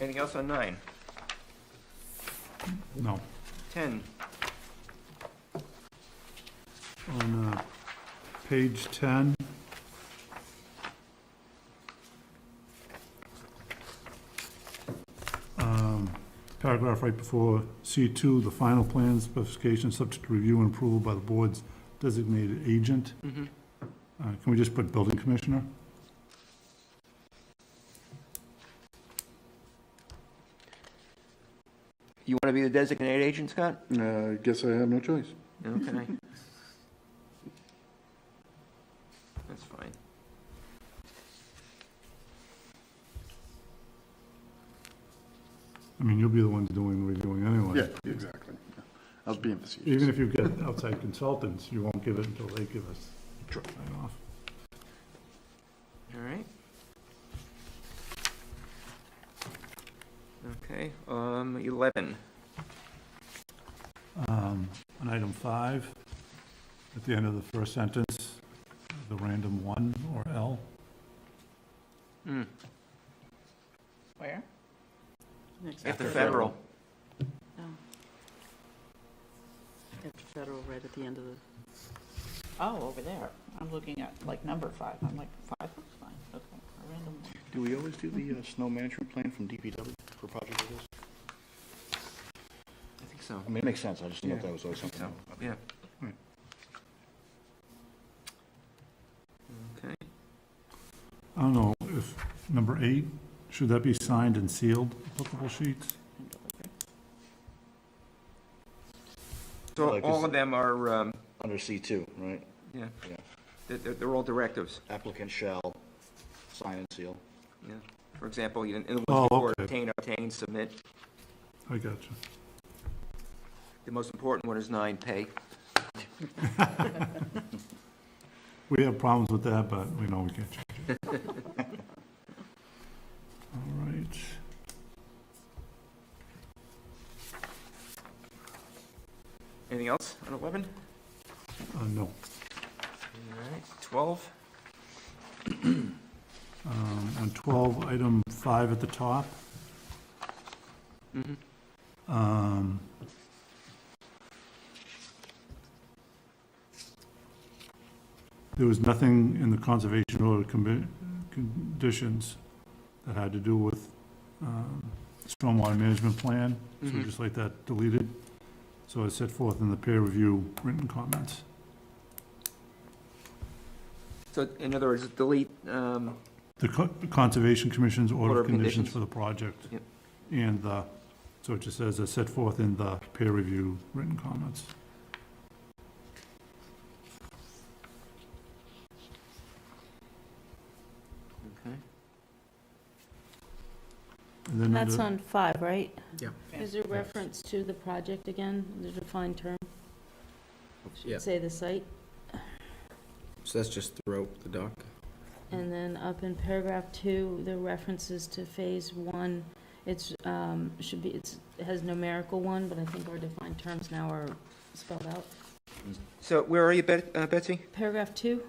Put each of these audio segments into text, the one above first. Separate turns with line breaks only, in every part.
Anything else on nine?
No.
Ten,
On uh, page 10, um, paragraph right before C2, the final plan specification subject to review and approval by the board's designated agent.
Mhm.
Uh, Can we just put building commissioner?
you want to be the designated agent, Scott?
Uh, I guess I have no choice.
Okay. That's fine.
I mean, you'll be the one doing the reviewing anyway.
Yeah, exactly. I was being facetious.
Even if you get outside consultants, you won't give it until they give us
Sure.
sign off.
All right. Okay, um, eleven.
Um, On item five, at the end of the first sentence, the random one or L,
Hmm,
Where?
after federal.
Oh. After federal, right at the end of the. Oh, over there. I'm looking at like number five. I'm like, five looks fine. Okay, a random one.
Do we always do the uh, snow management plan from DPW for projects like this?
I think so.
I mean, it makes sense, I just didn't know if Yeah. that was always something.
So, yeah.
Alright.
Okay,
I don't know if, number eight, should that be signed and sealed applicable sheets?
And delivery.
so
Like
all
this-
of them are, um,
Under C2, right?
yeah,
Yeah.
they're, they're- they're all directives,
Applicant shall sign and seal.
yeah. For example, you, in the
Oh,
ones before,
okay.
obtain, obtain, submit.
I got you.
The most important one is nine, pay.
We have problems with that, but we know we can't change it. All right.
Anything else on eleven?
Uh, No.
All right, twelve,
Um, On 12, item 5 at the top.
Mhm.
Um, There was nothing in the conservation order commi- conditions that had to do with um, stormwater management plan, so
Mhm.
just like that deleted. So it's set forth in the peer review written comments.
so in other words, delete, um,
The Co- the Conservation Commission's order
Order
of
of
conditions
conditions.
for the project.
Yep.
And the, so it just says, as set forth in the peer review written comments.
okay.
And then
That's
under-
on five, right?
Yeah.
Is there reference to the project again, the defined term?
Yeah.
Should say the site,
So that's just throughout the dock? Mm-hmm.
and then up in paragraph two, the references to phase one, it's, um, should be, it's, it has numerical one, but I think our defined terms now are spelled out.
So where are you, Bet- uh, Betsy?
Paragraph two,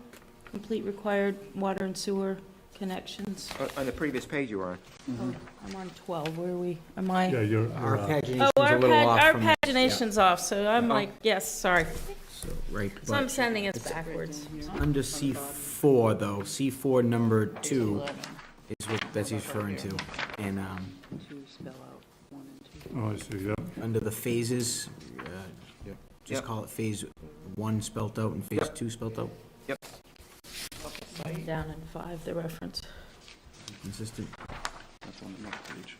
complete required water and sewer connections.
Uh, On- On the previous page you were on.
Mm-hmm.
Oh, I'm on twelve, where are we, am I?
Yeah, you're,
Our
you're, uh,
pagination's
Oh,
a
our
little
pag,
off
our
from,
pagination's off, so I'm
Oh.
Uh-huh.
like, yes, sorry,
so, right,
so I'm
but
sending us
It's-
backwards.
under C four though, C four number two is what Betsy's referring to. And, um,
To spell out one and two.
oh, I see, yeah.
under the phases, uh, just
Yep.
call it phase one spelt out and phase
Yep.
two spelt out,
Down in five, the reference.
consistent.
That's on the next page.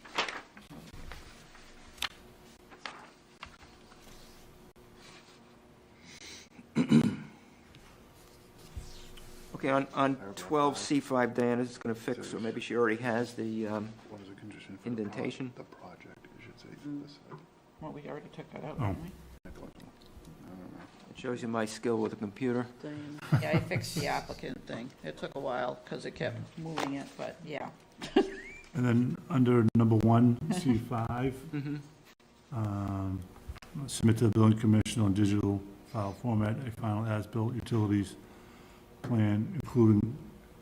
Okay, on, on
Paragraph five.
twelve C five, Diana is gonna fix, or maybe she already has the, um,
What is a condition for the pro-
indentation.
The project, you should say,
Mm.
this, uh,
Well, we already took that out,
Oh.
didn't we?
I don't know. I don't know.
It shows you my skill with a computer.
Diana. Yeah, I fixed the applicant thing. It took a while because it kept moving it, but yeah.
And then under number one, C5,
Mm-hmm.
um, submit to the building commissioner on digital file format a final as-built utilities plan, including